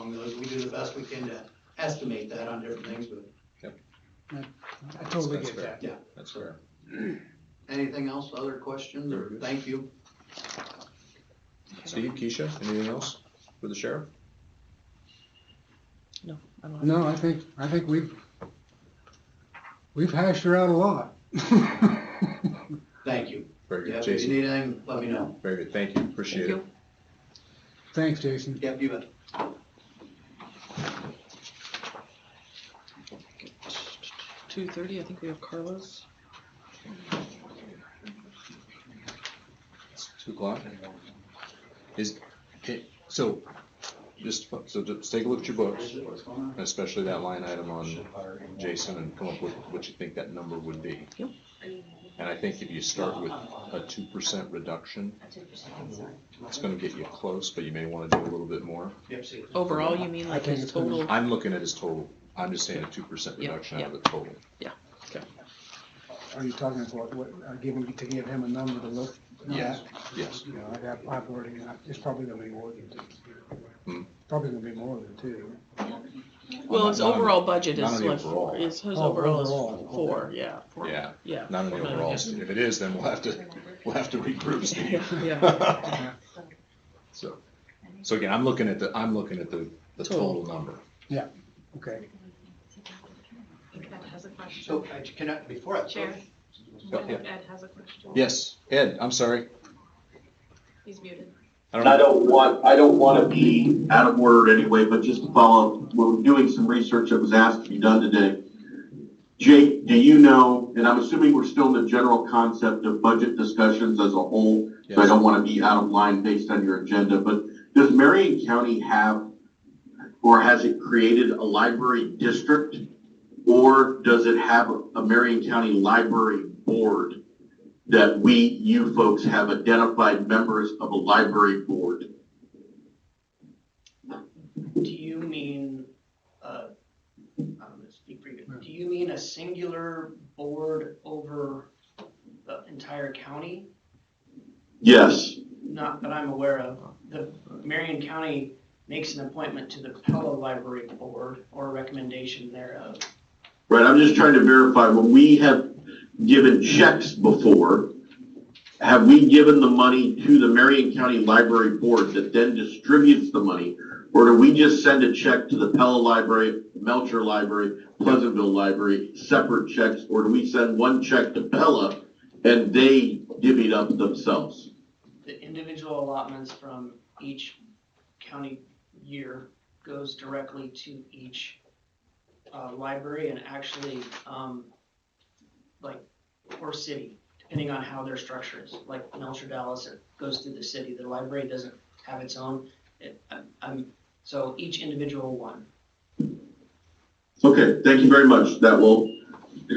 we do the best we can to estimate that on different things, but I totally That's get fair. that. That's fair. anything else, other questions, or thank you? Steve, Keisha, anything else for the sheriff? I don't know. No, I think, I think we've, we've hashed her out a lot. Thank you. Very Yeah, good, if you Jason. need anything, let me know. Very good, thank you, appreciate Thank it. you. Thanks, Jason. Yep, you bet. Two thirty, I think we have Carlos. It's Two o'clock? Is, okay, so, just, so just take a look at your books, What's going on? especially that line item on Jason, and come up with what you think that number would be. Yep. And I think if you start with a two percent reduction, it's gonna get you close, but you may wanna do a little bit more. Yep, see you. Overall, you mean I like think his it's gonna- total? I'm looking at his total, I'm just saying a two percent Yep, reduction out of the yep. total. Are you talking about, what, uh, giving, to give him a number to look? no, Yes. Yes, that- You know, I got, I've already, it's probably gonna be more than Hmm. two. Probably gonna be more than two. Well, his Not on- overall budget not on is the like, overall. is, his Oh, overall is overall, four, yeah, four, yeah. yeah. Not on the Not overall, yet. Steve. If it is, then we'll have to, we'll have to regroup, Steve. Yeah. So, so again, I'm looking at the, I'm looking at the, the total number. Okay, Ed has a question. So, I- can I, before I. Chair. Oh, yeah. Ed has a question. Yes, Ed, I'm sorry. He's muted. I And I don't, don't want, I don't want to be out of order anyway, but just to follow, up, we're doing some research that was asked to be done today. Jake, do you know, and I'm assuming we're still in the general concept of budget discussions as a whole, so I yes. don't want to be out of line based on your agenda, but does Marion County have, or has it created a library district? Or does it have a Marion County Library Board that we, you folks have identified members of a library board? Do you mean, uh, I'm gonna speak for you, do you mean a singular board over the entire county? Yes. Not that I'm aware of. The Marion County makes an appointment to the Pella Library Board or recommendation thereof. Right, I'm just trying to verify, when we have given checks before, have we given the money to the Marion County Library Board that then distributes the money? Or do we just send a check to the Pella Library, Melcher Library, Pleasantville Library, separate checks? Or do we send one check to Pella and they divvy it up themselves? the individual allotments from each county year goes directly to each uh, library and actually, um, like, or city, depending on how their structure is. Like Melcher Dallas, it goes through the city. The library doesn't have its own. It, i I'm- so each individual one. Okay, thank you very much. That will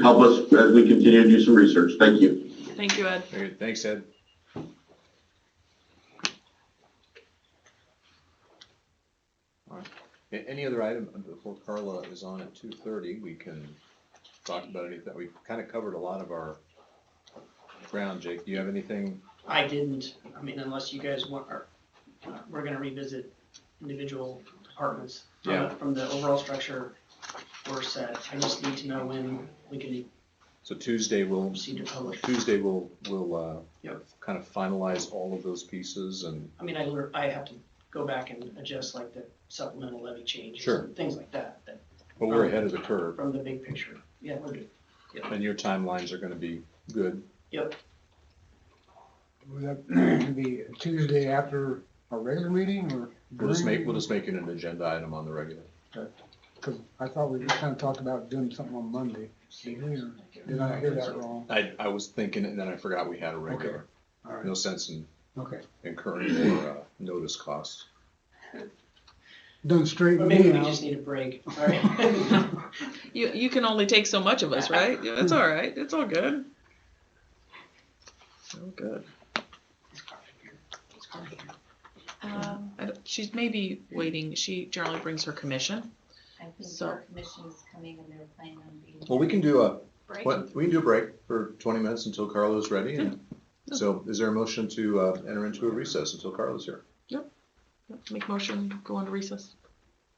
help us as we continue to do some research. Thank you. Thank you, Ed. Very good. Thanks, Ed. All right. A- Any other item before Carla is on at two thirty, we can talk about any of that. We've kind of covered a lot of our ground, Jake. Do you have anything? I didn't, I mean, unless you guys want, or, uh, we're gonna revisit individual departments. from the- Yeah. From the overall structure we're set. I just need to know when we can So Tuesday, we'll, proceed to publish. Tuesday, we'll, we'll, uh, Yep. kind of finalize all of those pieces and I mean, I learn, I have to go back and adjust like the supplemental levy changes. Sure. Things like that, that, But we're ahead of the curve, from the big picture. Yeah, we're good. and your timelines are gonna be good. would that be Tuesday after our regular meeting or? We'll just during? make, we'll just make it an agenda item on the regular. Cause I thought we just kinda talked about doing something on Monday. Did we, or did I hear that wrong? I, I was thinking, and then I forgot we had a regular. All right, No sense in okay. incurring more, uh, notice costs. Done straight But with maybe me we now. just need a break, all right? You, you can only take so much of us, right? Yeah, Hmm. It's all right. It's all good. So good. Um, I don't- she's maybe waiting. She generally brings her commission. I think So- our commission's coming and they're planning on being. Well, we can do a, Break. Oh, what- we can do a break for twenty minutes until Carla's ready, and Yeah. so is there a motion to, uh, enter into a recess until Carla's here? Make motion, go into recess.